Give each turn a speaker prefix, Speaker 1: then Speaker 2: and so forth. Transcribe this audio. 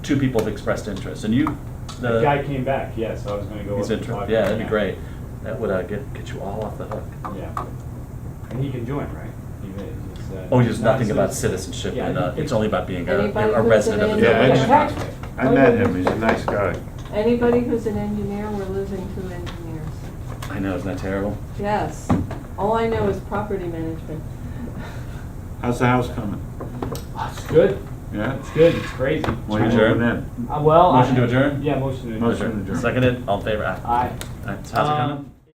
Speaker 1: two people have expressed interest, and you, the.
Speaker 2: The guy came back, yeah, so I was gonna go.
Speaker 1: He's
Speaker 2: up and talk
Speaker 1: interested,
Speaker 2: to
Speaker 1: yeah,
Speaker 2: him,
Speaker 1: that'd be great. That would uh, get, get you all off the hook.
Speaker 2: Yeah. And he can join, right? He may- he's, uh,
Speaker 1: Oh, there's
Speaker 2: not
Speaker 1: nothing about
Speaker 2: citizen.
Speaker 1: citizenship,
Speaker 2: Yeah,
Speaker 1: and
Speaker 2: I
Speaker 1: uh,
Speaker 2: think-
Speaker 1: it's only about being a
Speaker 3: Anybody
Speaker 1: a
Speaker 3: who's
Speaker 1: resident of
Speaker 3: an
Speaker 1: the
Speaker 4: engineer.
Speaker 1: village.
Speaker 4: Yeah,
Speaker 3: engineer.
Speaker 4: I met him, he's a nice guy.
Speaker 3: Anybody who's an engineer, we're losing two engineers.
Speaker 1: I know, isn't that terrible?
Speaker 3: Yes, all I know is property management.
Speaker 4: How's the house coming?
Speaker 2: It's good,
Speaker 4: Yeah?
Speaker 2: it's good, it's crazy.
Speaker 4: When you
Speaker 1: Adjourn.
Speaker 4: moving in?
Speaker 2: Uh, well. I-
Speaker 1: Motion to adjourn?
Speaker 2: Yeah, motion to adjourn.
Speaker 4: Motion to adjourn.
Speaker 1: Seconded, all in favor?
Speaker 2: Aye.
Speaker 1: That's- How's it coming?
Speaker 2: Um,